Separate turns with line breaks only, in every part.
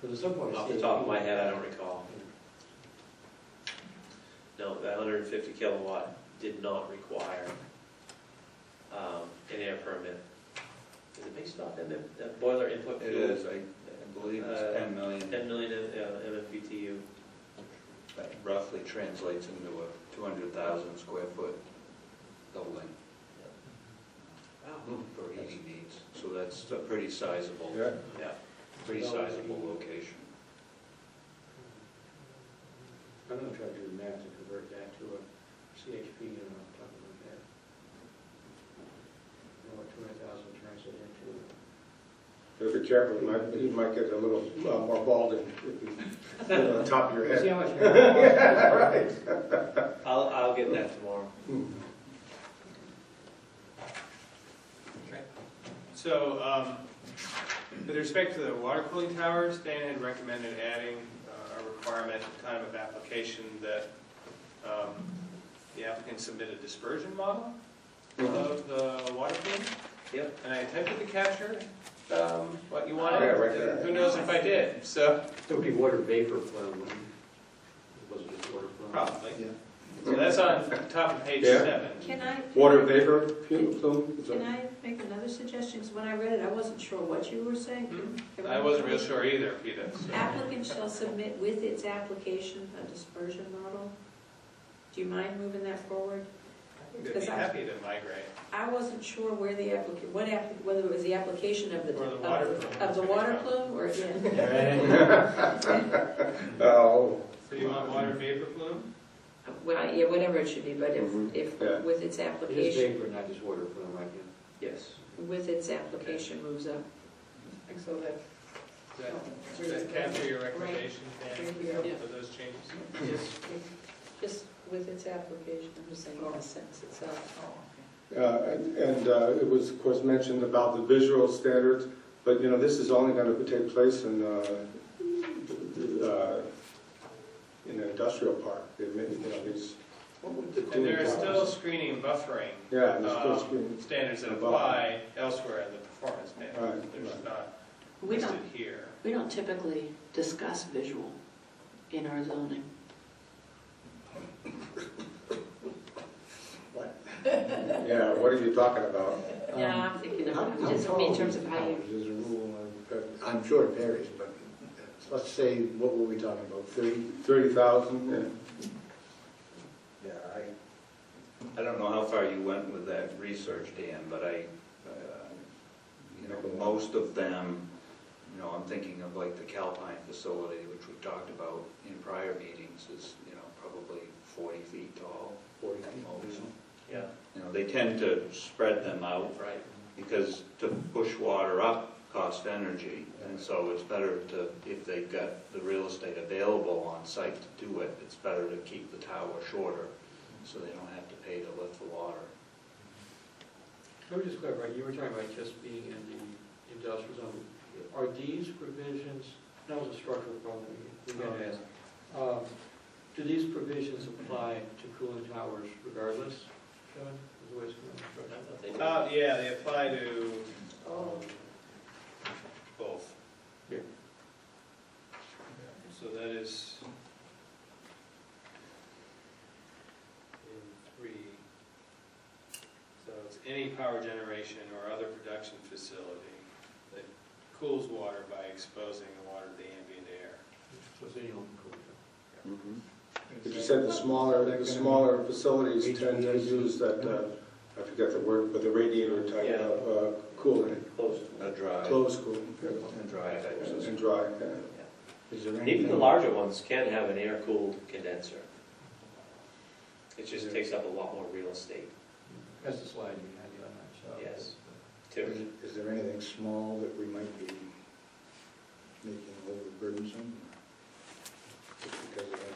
There was some point.
Off the top of my head, I don't recall. No, that hundred and fifty kilowatt did not require, um, an air permit. Is it based off MM, that boiler input
It
fuel?
is, I, I believe it's ten million,
Ten million, uh, MMBTU.
that roughly translates into a two hundred thousand square foot building
Wow.
for heating needs. So that's a pretty sizable,
Yeah,
pretty sizable location.
I'm gonna try to do the math to convert that to a CHP and I'll talk about that. You know what two hundred thousand turns it into?
Be careful, you might, you might get a little uh, more balding if you- on the top of your
See
head.
how much. Yeah,
Right.
I'll, I'll get that tomorrow.
So, um, with respect to the water cooling towers, Dan had recommended adding uh, a requirement at the time of application that um, the applicant submit a dispersion model of the water cooling.
Yep.
And I attempted to capture um, what you wanted.
Yeah, right there.
Who knows if I did, so,
It would be water vapor flow, wouldn't it? It wasn't just water flow.
probably. So that's on top of page
Yeah.
seven.
Can I?
Water vapor, pu- plume, is
Can
that-
I make another suggestion? 'Cause when I read it, I wasn't sure what you were saying.
Hmm? I wasn't real sure either, Peter, so.
Applicant shall submit with its application a dispersion model. Do you mind moving that forward?
They'd be happy to migrate.
I wasn't sure where the applicant, what app, whether it was the application of the.
Or the
of
water plume.
Of the water plume, or, yeah.
Oh,
So you want water vapor plume?
Well, yeah, whatever it should be, but if,
Mhm.
if,
Yeah.
with its
It is
application,
vapor, not just water flow, right? yeah.
Yes.
with its application moves up.
So that. Does that capture your recommendation, Dan,
Yeah.
for those changes?
Just with its application, I'm just saying, in the sentence itself.
Oh.
Uh, And and, uh, it was, of course, mentioned about the visual standards, but, you know, this is only going to take place in, uh, the- uh, in an industrial park. They may- you know, these-
And there are still screening and buffering
Yeah, there's still
Um,
screens.
standards that apply elsewhere in the performance standards.
Right,
They're just not
We
listed
don't,
here.
we don't typically discuss visual in our zoning.
Yeah, what are you talking about?
Yeah, I'm thinking
How-
Um,
of,
how
just
tall
in terms of how you
is the rule of- I'm sure it varies, but let's say, what were we talking about, 30?
30,000? Yeah.
Yeah, I...
I don't know how far you went with that research, Dan, but I, uh, you know, most of them, you know, I'm thinking of like the Calpine facility, which we talked about in prior meetings, is, you know, probably 40 feet tall at most.
Yeah,
You know, they tend to spread them out
right.
because to push water up costs energy. And so it's better to, if they've got the real estate available on site to do it, it's better to keep the tower shorter so they don't have to pay to lift the water.
Let me just clarify, you were talking about just being in the industrial zone. Are these provisions, that was a structural problem we got to ask. Um, Do these provisions apply to cooling towers regardless, Kevin? Is the way it's going to be
I
structured?
thought they did.
Uh, yeah, they apply to
Oh,
both.
Yeah.
So that is in three. So it's any power generation or other production facility that cools water by exposing the water to the ambient air.
So it's any open cooling tower.
Mm-hmm.
But you said the smaller, the smaller facilities tend to use that, uh, I forget the word, but the radiator type of uh, cooling,
Close.
A dry,
closed cooling,
a dry type system.
and dry. yeah.
Is there
And even the
anything,
larger ones can have an air-cooled condenser. It just takes up a lot more real estate,
That's the slide you had, yeah, I'm not sure.
yes.
is
To,
is there anything small that we might be making overburdensome? Just because of that air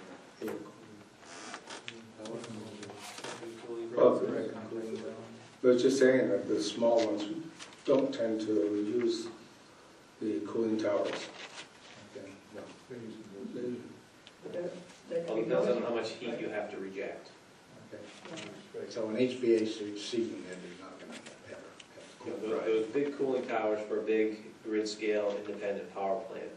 Mm-hmm.
Well,
cooling?
I was just saying that the small ones don't tend to use the cooling towers.
Okay, no.
Mm-hmm.
well, it depends on how much heat you have to reject.
So an HVAC seating that is not going to ever have
You know,
cooling.
Those those big cooling towers for a big grid-scale independent power plant